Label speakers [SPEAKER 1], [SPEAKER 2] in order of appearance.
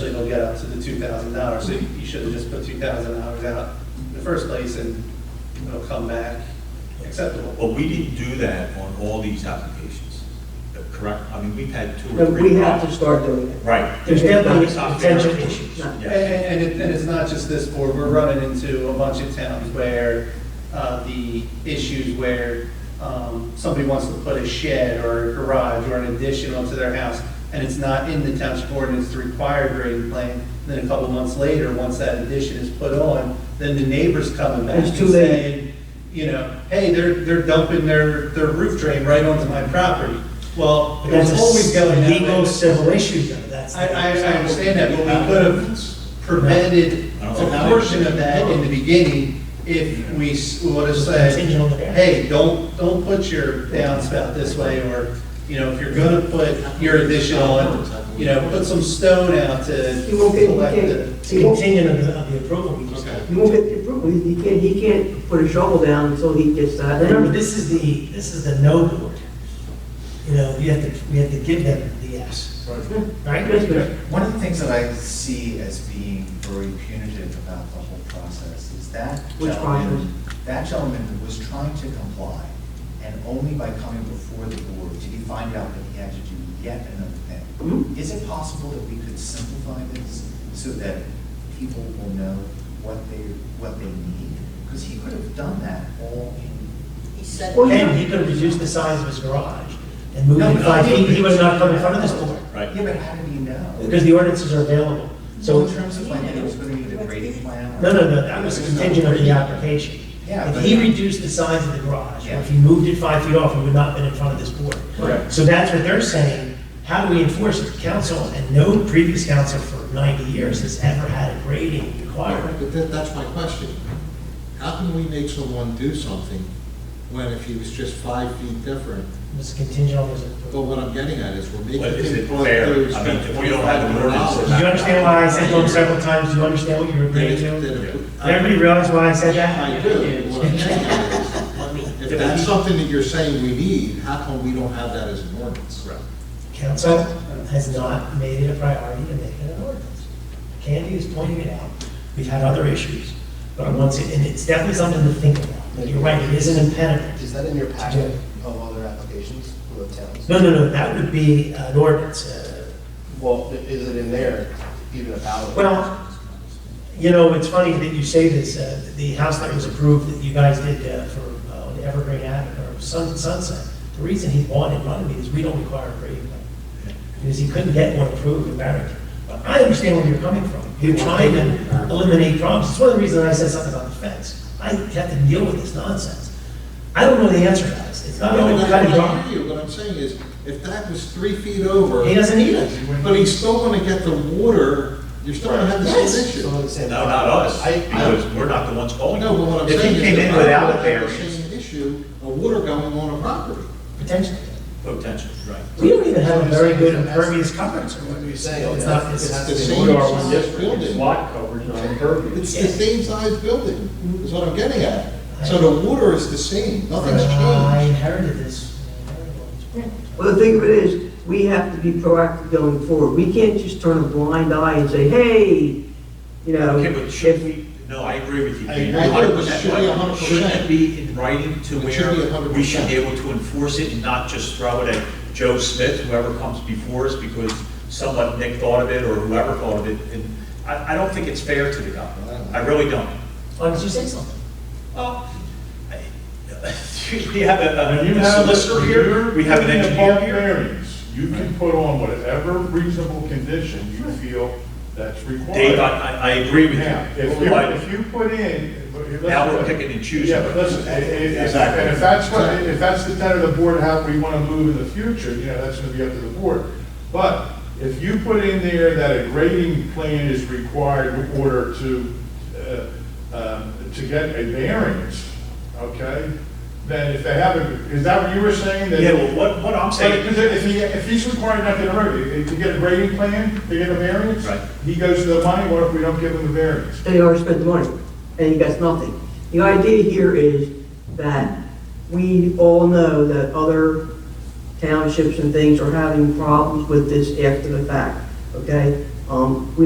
[SPEAKER 1] get up to the two thousand dollars, so you you should have just put two thousand dollars out in the first place, and it'll come back acceptable.
[SPEAKER 2] But we didn't do that on all these applications, correct? I mean, we've had two or
[SPEAKER 3] But
[SPEAKER 2] three.
[SPEAKER 3] we have to
[SPEAKER 2] problems.
[SPEAKER 3] start doing it.
[SPEAKER 2] Right.
[SPEAKER 3] There's definitely
[SPEAKER 2] It's not fair.
[SPEAKER 3] potential issues.
[SPEAKER 2] Yeah.
[SPEAKER 1] And, and it, and it's not just this board, we're running into a bunch of towns where, uh, the issues where, um, somebody wants to put a shed or a garage or an addition onto their house, and it's not in the township ordinance to require grading plan, then a couple months later, once that addition is put on, then the neighbor's coming back
[SPEAKER 3] It's
[SPEAKER 1] and
[SPEAKER 3] too late.
[SPEAKER 1] saying, you know, hey, they're, they're dumping their, their roof drain right onto my property. Well,
[SPEAKER 3] But
[SPEAKER 1] it was
[SPEAKER 3] that's a
[SPEAKER 1] always going that way.
[SPEAKER 3] Legal civil issue, though, that's.
[SPEAKER 1] I, I, I understand that, but we could have prevented a portion of that in the beginning if we s- would have said,
[SPEAKER 3] Contingent on the variance.
[SPEAKER 1] hey, don't, don't put your downspout this way, or, you know, if you're gonna put your addition on, you know, put some stone out to
[SPEAKER 4] You won't get- you
[SPEAKER 1] collect it.
[SPEAKER 4] can't-
[SPEAKER 3] It's contingent of the, of the approval we just
[SPEAKER 1] Okay.
[SPEAKER 3] got.
[SPEAKER 4] You won't get the approval, he can't, he can't put a shovel down until he gets that.
[SPEAKER 3] Remember, this is the, this is the no board. You know, we have to, we have to give them the yes, right?
[SPEAKER 4] Yes, sir.
[SPEAKER 5] One of the things that I see as being very punitive about the whole process is that
[SPEAKER 4] Which
[SPEAKER 5] gentleman, that gentleman was trying to comply, and only by coming before the board did he find out that he had to do yet another thing.
[SPEAKER 4] Mhm.
[SPEAKER 5] Is it possible that we could simplify this so that people will know what they, what they need? Because he could have done that all in,
[SPEAKER 6] He said,
[SPEAKER 4] Well,
[SPEAKER 3] And he could have reduced the size of his garage and moved
[SPEAKER 5] No,
[SPEAKER 3] it
[SPEAKER 5] but
[SPEAKER 3] five
[SPEAKER 5] I
[SPEAKER 3] feet,
[SPEAKER 5] think-
[SPEAKER 3] he would have not come in front of this board.
[SPEAKER 2] Right.
[SPEAKER 5] yeah, but how did he know?
[SPEAKER 3] Because the ordinances are available. So,
[SPEAKER 5] So in terms of like, it was going to be the grading plan? or-
[SPEAKER 3] no, no, no, that was contingent of the application.
[SPEAKER 5] Yeah,
[SPEAKER 3] If
[SPEAKER 5] but-
[SPEAKER 3] he reduced the size of the garage, or if
[SPEAKER 5] Yeah.
[SPEAKER 3] he moved it five feet off, he would not have been in front of this board.
[SPEAKER 2] Correct.
[SPEAKER 3] So that's what they're saying, how do we enforce it? Council, and no previous council for 90 years has ever had a grading requirement.
[SPEAKER 7] But that, that's my question. How can we make someone do something when if he was just five feet different?
[SPEAKER 3] It's contingent on his
[SPEAKER 7] But
[SPEAKER 3] approval.
[SPEAKER 7] what I'm getting at is we're making.
[SPEAKER 2] But is it
[SPEAKER 7] people out
[SPEAKER 2] fair?
[SPEAKER 7] there who
[SPEAKER 2] I
[SPEAKER 7] spend
[SPEAKER 2] mean, if we don't have an ordinance
[SPEAKER 3] Do you
[SPEAKER 7] $25,000,
[SPEAKER 3] understand why I said to him several times, do you understand what you're
[SPEAKER 7] then
[SPEAKER 3] agreeing
[SPEAKER 7] it's-
[SPEAKER 3] to? Did
[SPEAKER 7] then it-
[SPEAKER 3] everybody realize why I said that?
[SPEAKER 7] I do. What I'm saying is, If that's something that you're saying we need, how come we don't have that as an ordinance?
[SPEAKER 3] Council has not made it a priority to make it an ordinance. Candy is pointing it out. We've had other issues, but once, it- and it's definitely something to think about. You're right, it is an impediment.
[SPEAKER 8] Is that in your
[SPEAKER 3] do.
[SPEAKER 8] packet of other applications for the towns?
[SPEAKER 3] No, no, no, that would be an ordinance. uh,
[SPEAKER 8] Well, i- is it in there even about? it?
[SPEAKER 3] Well, you know, it's funny that you say this, uh, the house that was approved that you guys did uh, for uh, on Evergreen Avenue, or Sun- Sunset, the reason he wanted it running is we don't require a grading plan. Because he couldn't get one approved in Barrington. But I understand where you're coming from. You're trying to
[SPEAKER 8] uh,
[SPEAKER 3] eliminate problems. It's one of the reasons I said something about the fence. I have to deal with this nonsense. I don't know the answer, guys. It's not
[SPEAKER 7] No,
[SPEAKER 3] only
[SPEAKER 7] that's
[SPEAKER 3] cut and
[SPEAKER 7] what
[SPEAKER 3] dry.
[SPEAKER 7] I hear you. What I'm saying is, if that was three feet over.
[SPEAKER 3] He doesn't need it.
[SPEAKER 7] But he's still gonna get the water, you're still gonna have the same
[SPEAKER 3] Yes.
[SPEAKER 7] issue.
[SPEAKER 8] So I'm saying-
[SPEAKER 2] No, not us,
[SPEAKER 8] I,
[SPEAKER 2] because
[SPEAKER 8] I,
[SPEAKER 2] we're not the ones calling.
[SPEAKER 7] No, but what I'm
[SPEAKER 2] If he
[SPEAKER 7] saying is.
[SPEAKER 2] came in
[SPEAKER 7] that
[SPEAKER 2] without a
[SPEAKER 7] I have the
[SPEAKER 2] variance.
[SPEAKER 7] Same issue of water going on a property.
[SPEAKER 3] Potentially.
[SPEAKER 2] Potential, right.
[SPEAKER 3] We don't even have a very good impervious coverage.
[SPEAKER 8] what you're saying,
[SPEAKER 3] It's
[SPEAKER 8] it
[SPEAKER 3] not-
[SPEAKER 8] has, it
[SPEAKER 3] it's-
[SPEAKER 8] has
[SPEAKER 7] The
[SPEAKER 8] to be.
[SPEAKER 7] same size building,
[SPEAKER 9] lot coverage on
[SPEAKER 7] it's
[SPEAKER 9] impervious.
[SPEAKER 7] the same size building, is what I'm getting at. So the water is the same, nothing's
[SPEAKER 3] I
[SPEAKER 7] changed.
[SPEAKER 3] inherited this.
[SPEAKER 4] Well, the thing of it is, we have to be proactive going forward. We can't just turn a blind eye and say, hey, you know.
[SPEAKER 2] Okay, but should
[SPEAKER 4] if-
[SPEAKER 2] we, no, I agree with you.
[SPEAKER 7] I
[SPEAKER 2] Peter,
[SPEAKER 7] agree, but it
[SPEAKER 2] 100%,
[SPEAKER 7] should be
[SPEAKER 2] but
[SPEAKER 7] 100%.
[SPEAKER 2] Shouldn't it be in writing to
[SPEAKER 7] It should be
[SPEAKER 2] where we should
[SPEAKER 7] 100%.
[SPEAKER 2] be able to enforce it and not just throw it at Joe Smith, whoever comes before us, because someone, Nick thought of it, or whoever thought of it, and I, I don't think it's fair to the government, I really don't.
[SPEAKER 3] Why did you say something?
[SPEAKER 2] Well, I- we have a-
[SPEAKER 9] When you
[SPEAKER 2] a
[SPEAKER 9] have-
[SPEAKER 2] solicitor here, we have an
[SPEAKER 9] when you're giving
[SPEAKER 2] engineer
[SPEAKER 9] a bulk
[SPEAKER 2] here.
[SPEAKER 9] variance, You can put on whatever reasonable condition you feel that's required.
[SPEAKER 2] Dave, I, I- I agree with
[SPEAKER 9] Now, if you,
[SPEAKER 2] you. I-
[SPEAKER 9] if you put in. but you-
[SPEAKER 2] Now we're picking and choosing.
[SPEAKER 9] Yeah, but listen, i- i- if-
[SPEAKER 2] Exactly.
[SPEAKER 9] and if that's what, if that's the intent of the board, how we want to move in the future, you know, that's going to be up to the board. But if you put in there that a grading plan is required in order to, uh, um, to get a variance, okay? Then if they have, a- is that what you were saying? that-
[SPEAKER 2] Yeah, well, what, what I'm saying.
[SPEAKER 9] because if he, if he's required not to interview, to get a grading plan, to get a variance.
[SPEAKER 2] Right.
[SPEAKER 9] He goes to the money, what if we don't give him the variance?
[SPEAKER 4] they already spent the money, and he gets nothing. The idea here is that we all know that other townships and things are having problems with this after the fact, okay? Um, we